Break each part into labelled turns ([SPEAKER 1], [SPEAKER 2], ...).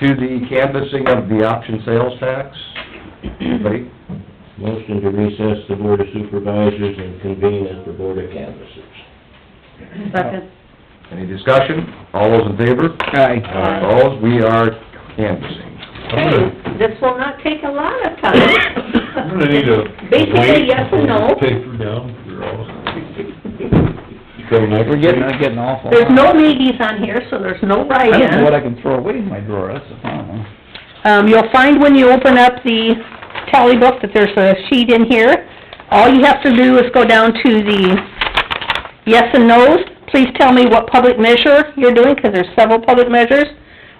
[SPEAKER 1] to the canvassing of the option sales tax. Anybody?
[SPEAKER 2] Motion to recess the Board of Supervisors and convene as the Board of Canvassers.
[SPEAKER 3] Second.
[SPEAKER 1] Any discussion? All those in favor? Uh,
[SPEAKER 4] Aye.
[SPEAKER 3] Aye.
[SPEAKER 1] Opposed? We are canvassing.
[SPEAKER 3] Hey, this will not take a lot of time.
[SPEAKER 5] I'm gonna need a.
[SPEAKER 3] Basically, yes and no.
[SPEAKER 5] Paper down for all.
[SPEAKER 2] Come next
[SPEAKER 4] We're
[SPEAKER 2] week.
[SPEAKER 4] getting, I'm getting awful.
[SPEAKER 3] There's no ladies on here, so there's no
[SPEAKER 4] I don't know what
[SPEAKER 3] write-in.
[SPEAKER 4] I can throw away in my drawer, that's the problem.
[SPEAKER 3] Um, you'll find when you open up the tally book that there's a sheet in here. All you have to do is go down to the yes and no's. Please tell me what public measure you're doing, because there's several public measures.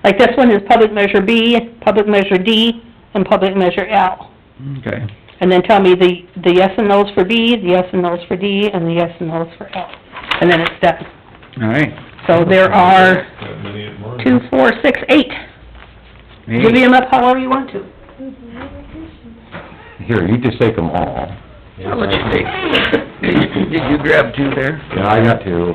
[SPEAKER 3] Like this one is public measure B, public measure D, and public measure L.
[SPEAKER 4] Okay.
[SPEAKER 3] And then tell me the, the yes and no's for B, the yes and no's for D, and the yes and no's for L. And then it's done.
[SPEAKER 4] All right.
[SPEAKER 3] So there are
[SPEAKER 5] That many at once.
[SPEAKER 3] two, four, six, eight. Divvy
[SPEAKER 4] Hey.
[SPEAKER 3] them up however you want to.
[SPEAKER 1] Here, you just take them all.
[SPEAKER 4] I'll let you take. Did you grab two there?
[SPEAKER 1] Yeah, I got two.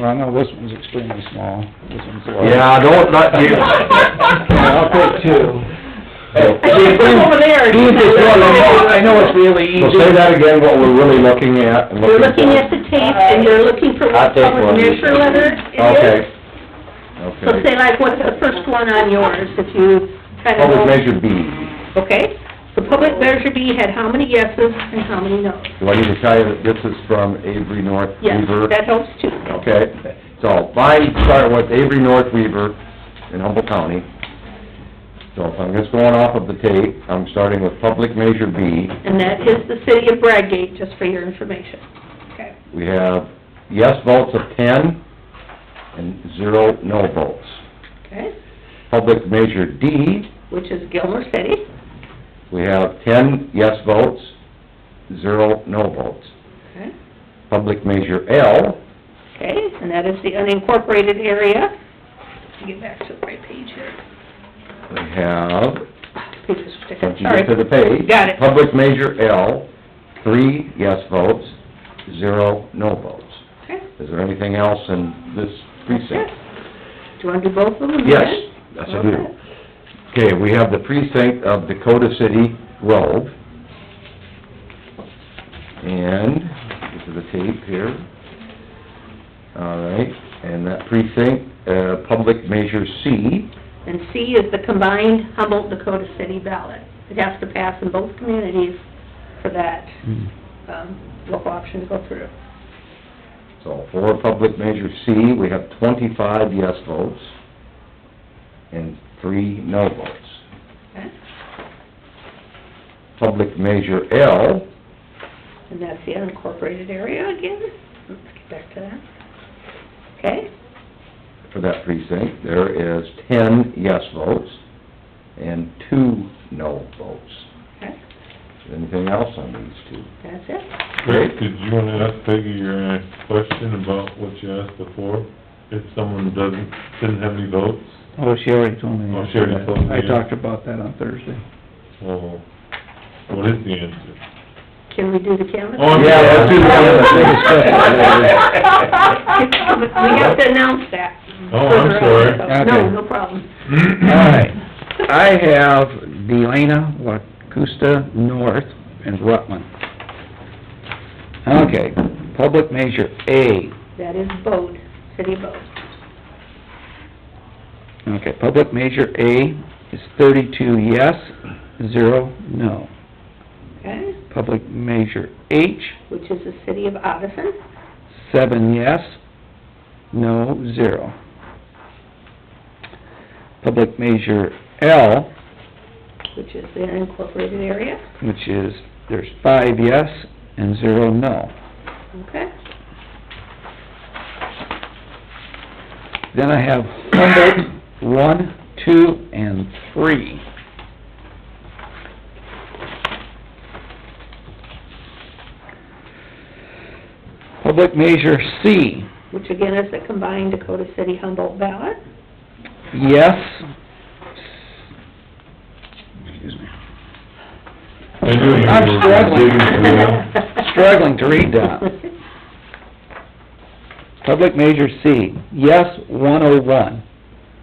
[SPEAKER 4] Well, I know this one's extremely small. This one's large.
[SPEAKER 1] Yeah, don't, not you.
[SPEAKER 3] there.
[SPEAKER 1] He's just one of them.
[SPEAKER 4] I know it's really easy.
[SPEAKER 1] So say that again, what we're really looking at and
[SPEAKER 3] You're
[SPEAKER 1] looking for.
[SPEAKER 3] looking at the tape and you're looking for
[SPEAKER 1] I'll
[SPEAKER 3] what
[SPEAKER 1] take
[SPEAKER 3] public
[SPEAKER 1] one.
[SPEAKER 3] measure letter it is.
[SPEAKER 1] Okay.
[SPEAKER 3] So
[SPEAKER 1] Okay.
[SPEAKER 3] say like what's the first one on yours, if you kind of know.
[SPEAKER 1] Public measure B.
[SPEAKER 3] Okay, so public measure B had how many yeses and how many noes?
[SPEAKER 1] Do I need to tell you that this is from Avery North
[SPEAKER 3] Yes,
[SPEAKER 1] Weaver?
[SPEAKER 3] that helps too.
[SPEAKER 1] Okay, so mine started with Avery North Weaver in Humboldt County. So if I'm just going off of the tape, I'm starting with public measure B.
[SPEAKER 3] And that is the city of Bradgate, just for your information. Okay.
[SPEAKER 1] We have yes votes of ten and zero no votes.
[SPEAKER 3] Okay,
[SPEAKER 1] Public measure D,
[SPEAKER 3] which is Gilmore City.
[SPEAKER 1] we have ten yes votes, zero no votes.
[SPEAKER 3] Okay.
[SPEAKER 1] Public measure L,
[SPEAKER 3] Okay, and that is the unincorporated area. Let me Get back to the right page here.
[SPEAKER 1] we have,
[SPEAKER 3] Page is particular,
[SPEAKER 1] once you get to the
[SPEAKER 3] sorry.
[SPEAKER 1] page.
[SPEAKER 3] Got it.
[SPEAKER 1] Public measure L, three yes votes, zero no votes.
[SPEAKER 3] Okay.
[SPEAKER 1] Is there anything else in this precinct?
[SPEAKER 3] Do you want to do both of them?
[SPEAKER 1] Yes,
[SPEAKER 3] then?
[SPEAKER 1] yes I do. Okay, we have the precinct of Dakota City Grove. And, this is the tape here. All right, and that precinct, uh, public measure C,
[SPEAKER 3] And C is the combined Humboldt-Dakota City ballot. It has to pass in both communities for that,
[SPEAKER 4] Hmm.
[SPEAKER 3] um, local option to go through.
[SPEAKER 1] so for public measure C, we have twenty-five yes votes and three no votes.
[SPEAKER 3] Okay?
[SPEAKER 1] Public measure L,
[SPEAKER 3] And that's the unincorporated area again. Let's get back to that. Okay?
[SPEAKER 1] for that precinct, there is ten yes votes and two no votes.
[SPEAKER 3] Okay.
[SPEAKER 1] Anything else on these two?
[SPEAKER 3] That's it.
[SPEAKER 5] Rick, did you wanna ask Peggy your uh, question about what you asked before? If someone doesn't, didn't have any votes?
[SPEAKER 4] Oh, she already told me.
[SPEAKER 5] Oh, she already told me,
[SPEAKER 4] I
[SPEAKER 5] yeah.
[SPEAKER 4] talked about that on Thursday.
[SPEAKER 5] Well, uh, what is the answer?
[SPEAKER 3] Can we do the canvas?
[SPEAKER 5] Oh, I'm-
[SPEAKER 1] Yeah, that's in one of the biggest
[SPEAKER 3] We have to announce that.
[SPEAKER 5] Oh, I'm sorry.
[SPEAKER 3] No,
[SPEAKER 4] Okay.
[SPEAKER 3] no problem.
[SPEAKER 4] All right. I have Delana Wacusta North and Rutland. Okay, public measure A.
[SPEAKER 3] That is Bode, City of Bode.
[SPEAKER 4] Okay, public measure A is thirty-two yes, zero no.
[SPEAKER 3] okay?
[SPEAKER 4] Public measure H,
[SPEAKER 3] Which is the City of Odison.
[SPEAKER 4] seven yes, no, zero. Public measure L,
[SPEAKER 3] which is the unincorporated area,
[SPEAKER 4] which is, there's five yes and zero no.
[SPEAKER 3] okay?
[SPEAKER 4] Then I have Humboldt, one, two, and three. Public measure C,
[SPEAKER 3] Which again is the combined Dakota City Humboldt ballot,
[SPEAKER 4] yes. Excuse me.
[SPEAKER 5] I knew you
[SPEAKER 4] I'm
[SPEAKER 5] were
[SPEAKER 4] struggling.
[SPEAKER 5] digging for that.
[SPEAKER 4] Struggling to read that. Public measure C, yes, one oh one.